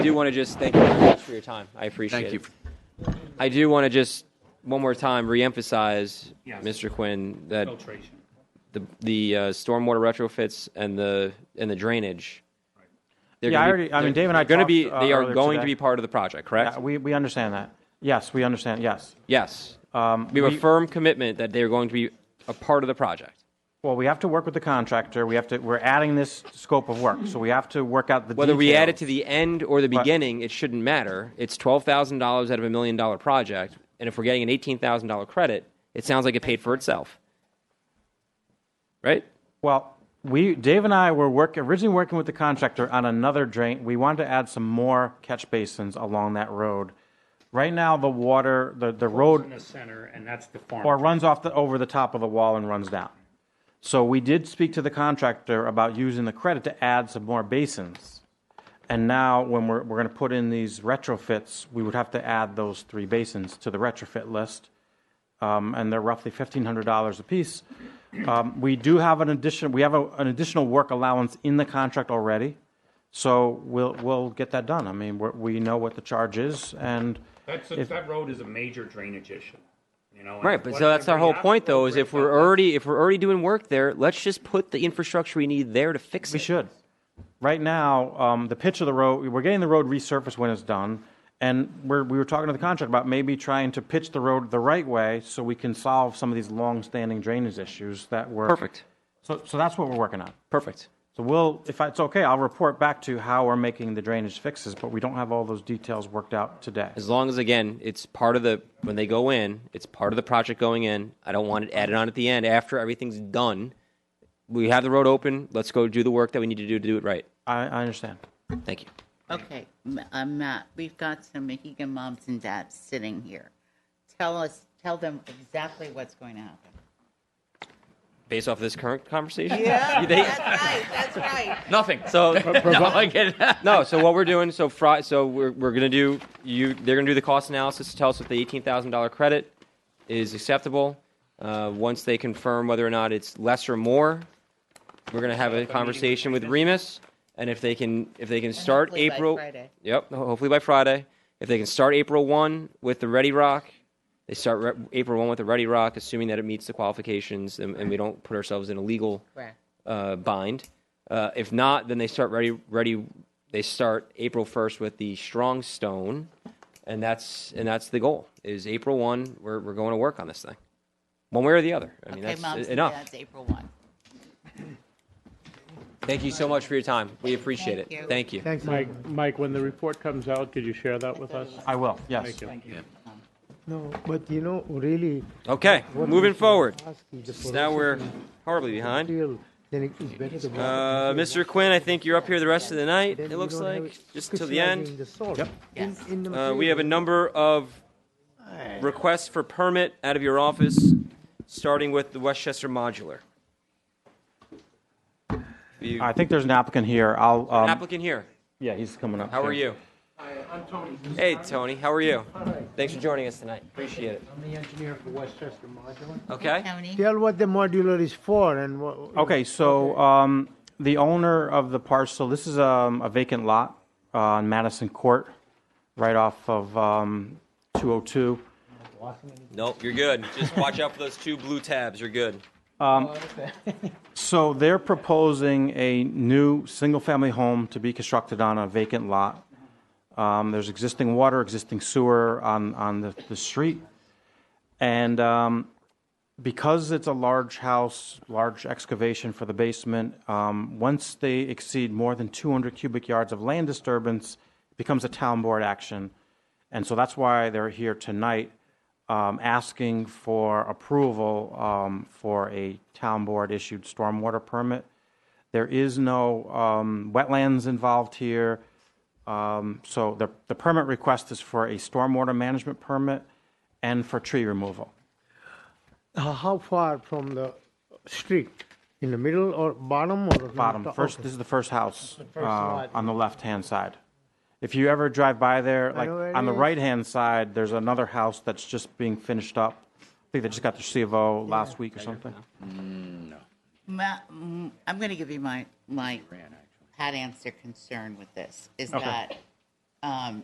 do want to just thank you very much for your time. I appreciate Thank you. it. I do want to just one more time reemphasize, Yes. Mr. Quinn, that Filtration. the the uh, stormwater retrofits and the and the drainage. they're Yeah, gonna I be- already- I mean, they're- Dave and I they're gonna be. talked, uh, They are earlier going to today. be part of the project, correct? Yeah, we, we understand that. Yes, we understand, yes. yes. Um, we have we- a firm commitment that they are going to be a part of the project. Well, we have to work with the contractor, we have to, we're adding this scope of work, so we have to work out the details. Whether we add it to the end or the beginning, it shouldn't matter. It's twelve thousand dollars out of a million dollar project, and if we're getting an eighteen thousand dollar credit, it sounds like it paid for itself, right? Well, we, Dave and I were work, originally working with the contractor on another drain. We wanted to add some more catch basins along that road. Right now, the water, the, the road. In the center, and that's the or farm. runs off the, over the top of the wall and runs down. So we did speak to the contractor about using the credit to add some more basins. And now when we're, we're gonna put in these retrofits, we would have to add those three basins to the retrofit list. Um, and they're roughly fifteen hundred dollars apiece. Um, we do have an addition, we have a, an additional work allowance in the contract already. So we'll, we'll get that done. I mean, we're, we know what the charge is and That's, a- if- that road is a major drainage issue, you know? and Right, but so what- that's our whole we have point, to though, is break if we're down- already if we're already doing work there, let's just put the infrastructure we need there to fix We it. should. Right now, um, the pitch of the road, we're getting the road resurfaced when it's done. And we're, we were talking to the contractor about maybe trying to pitch the road the right way so we can solve some of these long-standing drainage issues that were. Perfect, So, so that's what we're working on. perfect. So we'll, if it's okay, I'll report back to you how we're making the drainage fixes, but we don't have all those details worked out today. As long as again, it's part of the when they go in, it's part of the project going in. I don't want it added on at the end after everything's done. We have the road open. Let's go do the work that we need to do to do it right. I, I understand. Thank you. Okay, M- uh, Matt, we've got some Mohegan moms and dads sitting here. Tell us, tell them exactly what's going to happen. Based off of this current conversation, Yeah, They- right, that's right. Nothing. so No, I get it. no. So what we're doing? So Friday. So we're, we're gonna do you. They're gonna do the cost analysis to tell us if the eighteen thousand dollar credit is acceptable. Uh, once they confirm whether or not it's less or more, we're gonna have a conversation with Remus, and if they can, if they can start hopefully by April. Friday. Yep. ho- Hopefully by Friday, if they can start April one with the Ready Rock. They start re- April 1 with the Ready Rock, assuming that it meets the qualifications and, and we don't put ourselves in a legal Correct. uh, bind. Uh, if not, then they start ready ready. They start April first with the strong stone, and that's and that's the goal. Is April one? We're we're going to work on this thing, one way or the other. I mean, Okay, moms that's and enough. dads, April 1. Thank you so much for your time. We appreciate Thank it. you. Thank you. Thanks, Mike. Mike, when the report comes out, could you share that with us? I will, yes. Thank you. No, but you know, really. Okay, what we moving should forward. ask is the So now we're horribly behind. provincial, Then it is better the. Uh, Mr. Quinn, I think you're up here the rest of the night. then It you looks don't have like it just until the end. crystallizing the salt in- Yes. in the Uh, we have a material. number of requests for permit out of your office, starting with the Westchester modular. You- I think there's an applicant here. I'll, um, Applicant here, yeah, he's coming up. how are here. you? Hi, I'm Tony. Hey, Tony, how are you? Thanks for joining us tonight, appreciate it. I'm the engineer for Westchester Modular. Okay, Tony? Tell what the modular is for and what. Okay, so um, the owner of the parcel, this is um, a vacant lot uh, on Madison Court, right off of um, 202. nope, you're good, just watch out for those two blue tabs, you're good. So they're proposing a new single-family home to be constructed on a vacant lot. Um, There's existing water, existing sewer on, on the, the street. And um, because it's a large house, large excavation for the basement, um, once they exceed more than 200 cubic yards of land disturbance, it becomes a town board action. And so that's why they're here tonight, um, asking for approval um, for a town board issued stormwater permit. There is no um, wetlands involved here. Um, So the, the permit request is for a stormwater management permit and for tree removal. How how far from the street? In the middle or bottom or? the Bottom, top? first, Okay. this is the first house first uh, lot. on the left-hand side. If you ever drive by there, like, know where it on the is. right-hand side, there's another house that's just being finished up. I think they just got their C of O last week or something. Ma- mm, I'm going to give you my, my hat answer concern with this, is that